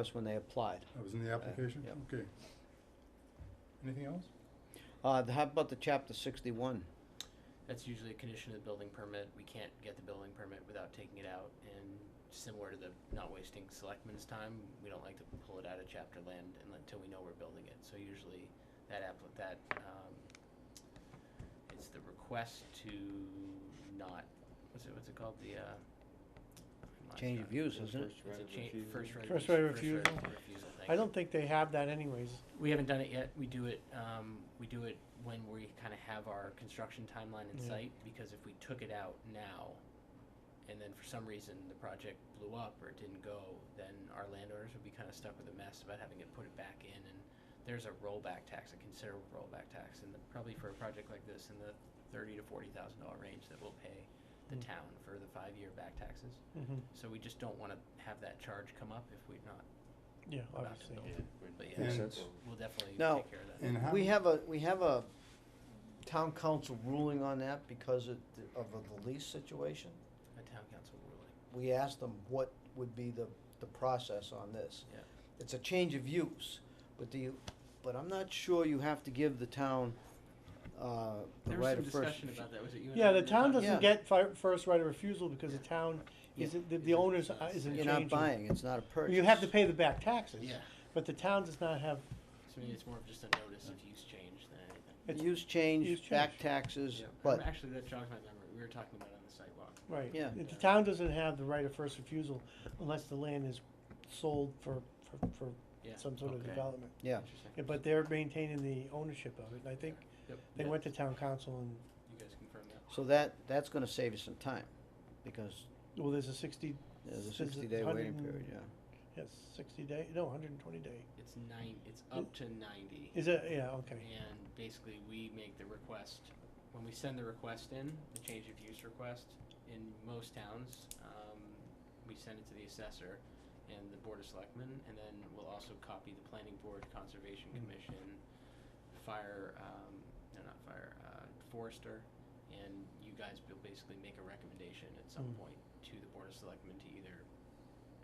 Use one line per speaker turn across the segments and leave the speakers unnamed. was when they applied.
That was in the application?
yep.
Okay. Anything else?
Uh, the- how about the chapter sixty-one?
That's usually a condition of the building permit. We can't get the building permit without taking it out. And similar to the not wasting selectmen's time, we don't like to pull it out of chapter land unle- until we know we're building it. So usually that app, that, um, it's the request to not, what's it, what's it called? The, uh. I'm not
Change of
sure.
views, isn't it?
It's a change, first right of
First
refus-
right of
First right
refusal.
of refusal thing.
I don't think they have that anyways.
We haven't done it yet. We do it, um, we do it when we kind of have our construction timeline in
Yeah.
sight, because if we took it out now, and then for some reason the project blew up or it didn't go, then our landowners would be kind of stuck with a mess about having to put it back in, and there's a rollback tax, a considerable rollback tax, and probably for a project like this, in the thirty to forty thousand dollar range that we'll pay the
Mm.
town for the five-year back taxes.
Mhm.
So we just don't want to have that charge come up if we're not,
Yeah,
About the
obviously.
building. but yeah,
Makes
we'll
sense.
we'll definitely
Now,
take care of that.
And how?
We have a, we have a town council ruling on that because of, the- of the lease situation.
A town council ruling.
We asked them what would be the, the process on this.
Yeah.
It's a change of use, but do you, but I'm not sure you have to give the town, uh, the
There was
right
some
of first.
discussion about that, was it you and I
Yeah,
that
the
were
town
talking
Yeah.
doesn't
about
get fi- first right of refusal because the
Yeah.
town
Yeah.
isn't, the, the owner's uh, isn't
You're
changing.
not buying, it's not a purchase.
You have to pay the back taxes.
it? Yeah,
But the town does not have,
so maybe it's more of just a notice of use change than anything.
it's,
Use
Use
change, back
change.
taxes,
Yeah.
but,
Actually, that jogs my memory, we were talking about it on the sidewalk.
right.
Yeah.
The town doesn't have the right of first refusal unless the land is sold for, for, for
Yeah.
some sort of
Okay.
development.
yeah.
Interesting.
Yeah, But they're maintaining the ownership of it, and I think
Yep.
they
Yeah.
went to town council and,
You guys confirm that?
So that, that's gonna save you some time, because
well, there's a sixty,
there's a
Is it
sixty day waiting
100
period, yeah.
yes, sixty day, no, hundred and twenty day.
It's nine, it's up to ninety.
Is it, yeah, okay.
And basically, we make the request, when we send the request in, the change of use request, in most towns, um, we send it to the assessor and the board of selectmen, and then we'll also copy the planning board, conservation
Mm.
commission, fire, um, no, not fire, uh, forester, and you guys will basically make a recommendation at some
Mm.
point to the board of selectmen to either,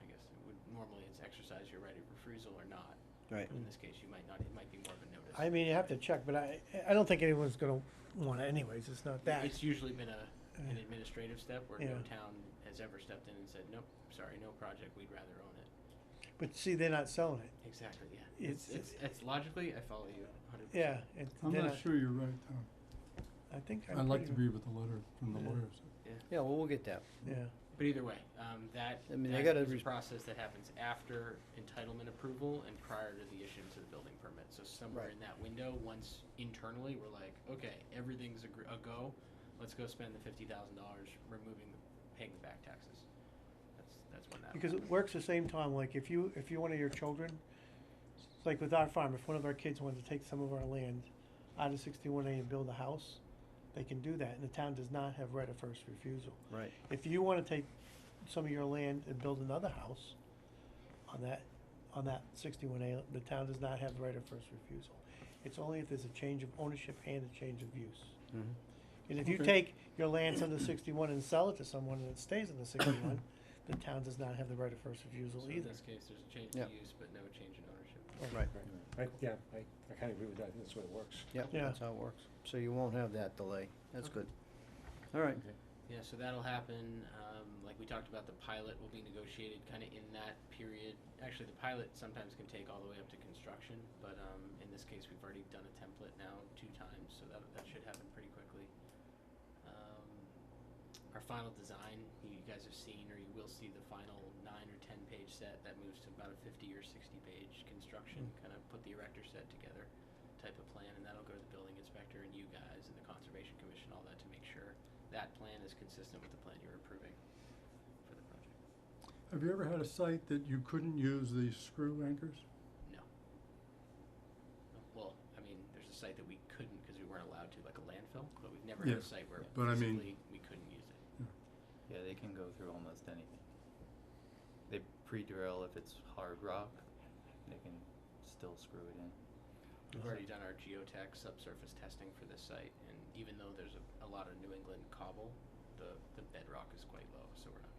I guess, it would, normally it's exercise your right of refusal or not.
Right.
In this case, you might not, it might be more of a notice.
I mean, you have to check, but I, I don't think anyone's gonna want it anyways, it's not that.
It's usually been a, an
Uh,
administrative step where no
Yeah.
town has ever stepped in and said, nope, sorry, no project, we'd rather own it.
But see, they're not selling it,
Exactly, yeah.
It's-
It's, it's, it's logically, I follow you hundred percent.
yeah, it,
I'm
they're
not
not,
sure you're right, Tom.
I think. I'm
I'd like to
pretty-
agree with the letter from the
Yeah.
lawyers.
Yeah, well, we'll get that.
Yeah,
But either way, um, that,
I mean, they
that
gotta
is a
res-
process that happens after entitlement approval and prior to the issuance of the building permit. So somewhere
Right.
in that window, once internally, we're like, okay, everything's a, gr- a go, let's go spend the fifty thousand dollars removing, the- paying the back taxes. That's, that's when that.
because it
happens.
works the same time, like if you, if you're one of your children, it's like with our farm, if one of our kids wanted to take some of our land out of sixty-one A and build a house, they can do that, and the town does not have right of first refusal.
Right.
If you wanna take some of your land and build another house on that, on that sixty-one A, the town does not have the right of first refusal. It's only if there's a change of ownership and a change of use.
Mhm.
And if you
Okay.
take your lands under sixty-one and sell it to someone and it stays under sixty-one, the town does not have the right of first refusal
So in
either.
this case, there's a change
Yeah.
of use, but no change in ownership.
Right,
I, yeah, I, I kind of agree with that, I think that's the way it works.
yeah,
Yeah.
that's how it works. So you won't have that delay. That's
Okay.
good. All right,
Yeah, so that'll happen. Um, like we talked about, the pilot will be negotiated kind of in that period. Actually, the pilot sometimes can take all the way up to construction, but um, in this case, we've already done a template now two times, so that, that should happen pretty quickly. Um, our final design, you guys have seen, or you will see the final nine or ten page set that moves to about a 50 or 60 page construction, kind of put the erector set together type of plan, and that'll go to the building inspector and you guys and the Conservation Commission, all that to make sure that plan is consistent with the plan you're approving for the project.
Have you ever had a site that you couldn't use the screw anchors?
Well, I mean, there's a site that we couldn't because we weren't allowed to, like a landfill, but we've never had a
Yes,
site where
but I mean-
physically we couldn't use it.
Yeah, they can go through almost anything. They pre-drill if it's hard rock, they can still screw it in.
We've already done our geotech subsurface testing for this site, and even though there's a, a lot of New England cobble, the, the bedrock is quite low, so we're not
Hmm.